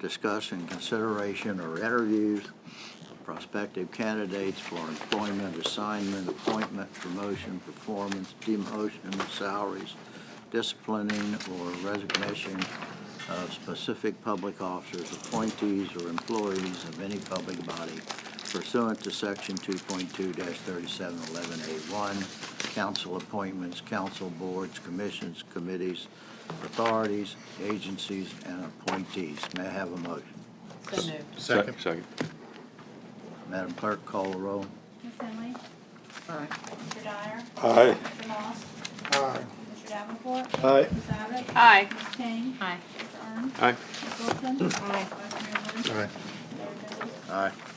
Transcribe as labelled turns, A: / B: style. A: discussion, consideration, or interviews of prospective candidates for employment, assignment, appointment, promotion, performance, demotion, salaries, disciplining, or resignation of specific public officers, appointees, or employees of any public body pursuant to Section 2.2-3711A1, council appointments, council boards, commissions, committees, authorities, agencies, and appointees. May I have a motion?
B: So moved.
C: Second.
D: Second.
A: Madam Clerk, call the roll.
E: Ms. Henley,
B: Aye.
E: Mr. Dyer,
C: Aye.
E: Mr. Moss,
C: Aye.
E: Mr. Davenport.
C: Aye.
E: Ms. Abbott.
B: Aye.
E: Ms. Kane.
B: Aye.
E: Mr. Arndt.
D: Aye.
E: Ms. Wilson.
B: Aye.
E: Vice Mayor Wood.
C: Aye.
E: Mayor Dennison.
A: Aye.